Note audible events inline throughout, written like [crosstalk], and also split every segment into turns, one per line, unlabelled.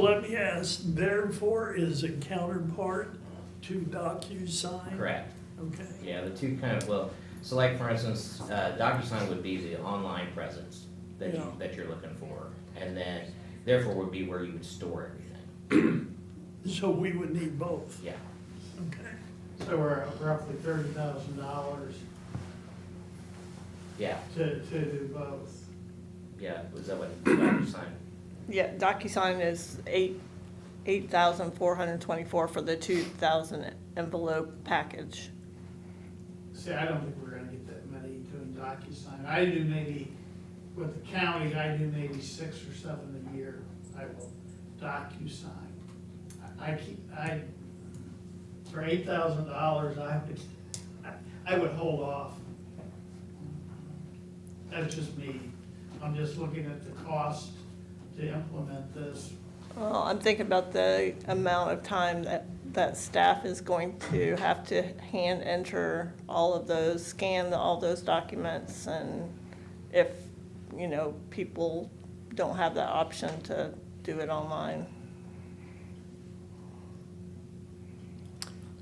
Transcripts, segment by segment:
Let me ask, therefore is a counterpart to DocuSign?
Correct.
Okay.
Yeah, the two kind of, well, so like for instance, uh, DocuSign would be the online presence that you,
Yeah.
that you're looking for. And then therefore would be where you would store everything.
So we would need both,
Yeah.
okay?
So we're at roughly thirty thousand dollars
Yeah,
to, to do both.
yeah. Was that what DocuSign?
Yeah, DocuSign is eight, eight thousand four hundred twenty-four for the two thousand envelope package.
See, I don't think we're gonna get that many doing DocuSign. I do maybe, with the county, I do maybe six or seven a year. I will DocuSign. I I keep, I, for eight thousand dollars, I would, I would hold off. That's just me. I'm just looking at the cost to implement this.
Well, I'm thinking about the amount of time that, that staff is going to have to hand enter all of those, scan all those documents, and if, you know, people don't have the option to do it online.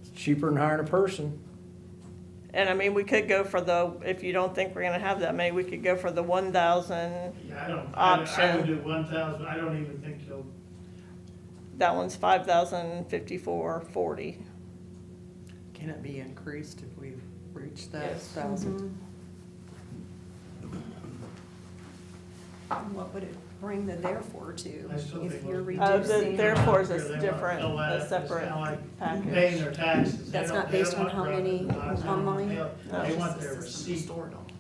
It's cheaper than hiring a person.
And I mean, we could go for the, if you don't think we're gonna have that many, we could go for the one thousand,
Yeah, I don't, I I
Option.
would do one thousand. I don't even think you'll
that one's five thousand fifty-four forty.
Can it be increased if we reach that
Yes.
thousand?
What would it bring the therefore to
I still
if
think
you're
most-
Uh,
reducing?
the therefore is
They
a
want
different,
to let-
a
it's
separate
kinda like Paying
package.
their taxes. They
That's
don't-
not
they
based
don't
on
want
how
revenue.
many
They don't want
online? Oh.
mail. They want their receipt.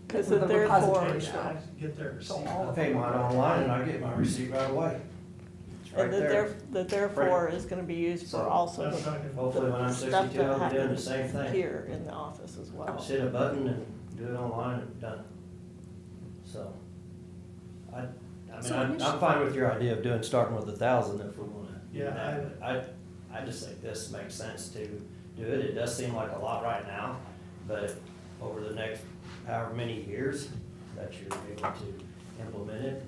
Cause the
The
therefore,
repository.
Get their- Get their receipt.
I pay mine online and I get my receipt right away. It's right
and the
there.
there, the therefore is gonna be used for
So-
also
That's
the
not gonna-
Hopefully when I'm
stuff
sixty-two,
that
I'll be doing the
happens
same thing.
here in the office as well.
Just hit a button and do it online and done. So, I, I mean,
So
I'm,
initially-
I'm fine with your idea of doing, starting with a thousand if we wanna. do
Yeah,
that, but I, I just think this makes sense to do it. It does seem like a lot right now, but over the next however many years that you're able to implement it,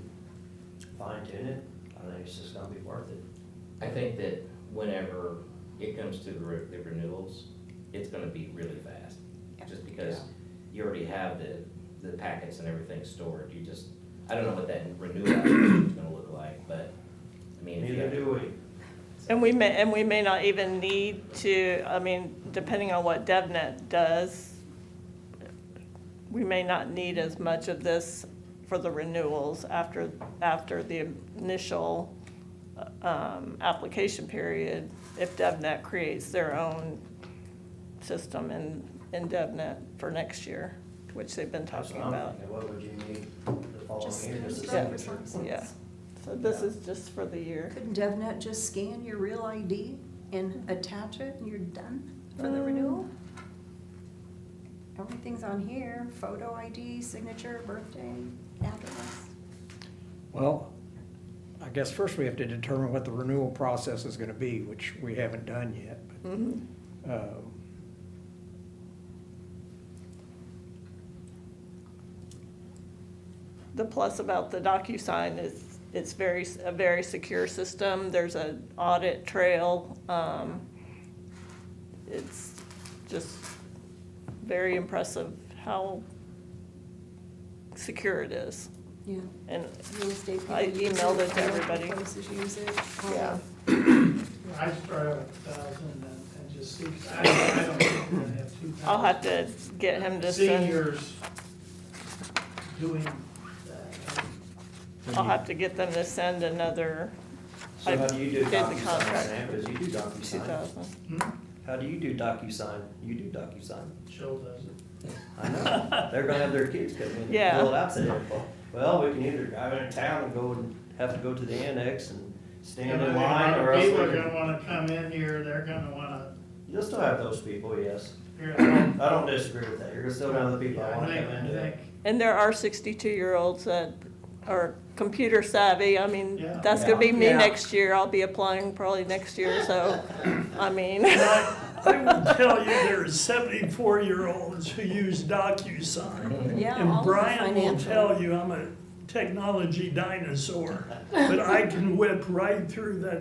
fine tune it, I think it's just gonna be worth it.
I think that whenever it comes to the re- the renewals, it's gonna be really fast.
Yeah.
Just because you already have the, the packets and everything stored, you just, I don't know what that renewal [coughs] is gonna look like, but, I mean. if you
Neither
have-
do we.
And we may, and we may not even need to, I mean, depending on what DevNet does, we may not need as much of this for the renewals after, after the initial, um, application period, if DevNet creates their own system in, in DevNet for next year, which they've been
That's
talking
what I'm
about.
thinking. What would you need the
Just
following year? Just a
scan
your
signature?
license.
Yeah, so this is just for the year.
Couldn't DevNet just scan your real ID and attach it and you're done for the
Um.
renewal? Everything's on here, photo ID, signature, birthday, address.
Well, I guess first we have to determine what the renewal process is gonna be, which we haven't done yet.
Mhm.
Um,
The plus about the DocuSign is it's very, a very secure system. There's an audit trail. Um, It's just very impressive how secure it is.
Yeah,
And
real estate people
I
use it.
emailed it to
commercial
everybody.
Places use it. all
Yeah.
I start out with a thousand and, and just see, 'cause I don't, I don't think we're gonna have two.
I'll have to get him to send,
Seniors doing that.
I'll have to get them to send another
So how do you do
I did the
DocuSign,
contract.
Sam? Because you do
two
DocuSign.
thousand.
Hmm?
How do you do DocuSign? You do DocuSign.
Jill does it.
I know. [laughs] They're gonna have their kids come in and
Yeah.
fill it out today. Well, Well, we can either drive into town and go and have to go to the annex and stand in line or else. we
People are
can-
gonna wanna come in here, they're gonna wanna
You'll still have those people, yes.
figure
I
out
don't- I don't disagree with that. You're gonna still have the people that
Yeah, I
wanna
think,
come
I
into
think,
it.
And there are sixty-two-year-olds that are computer savvy, I mean,
Yeah.
that's gonna be me
Yeah.
next year, I'll be applying probably next year, so, I mean,
And I, I will tell you, there are seventy-four-year-olds who use DocuSign.
Yeah, all
And
of the
Brian will
financial-
tell you, I'm a technology dinosaur, but I can whip right through that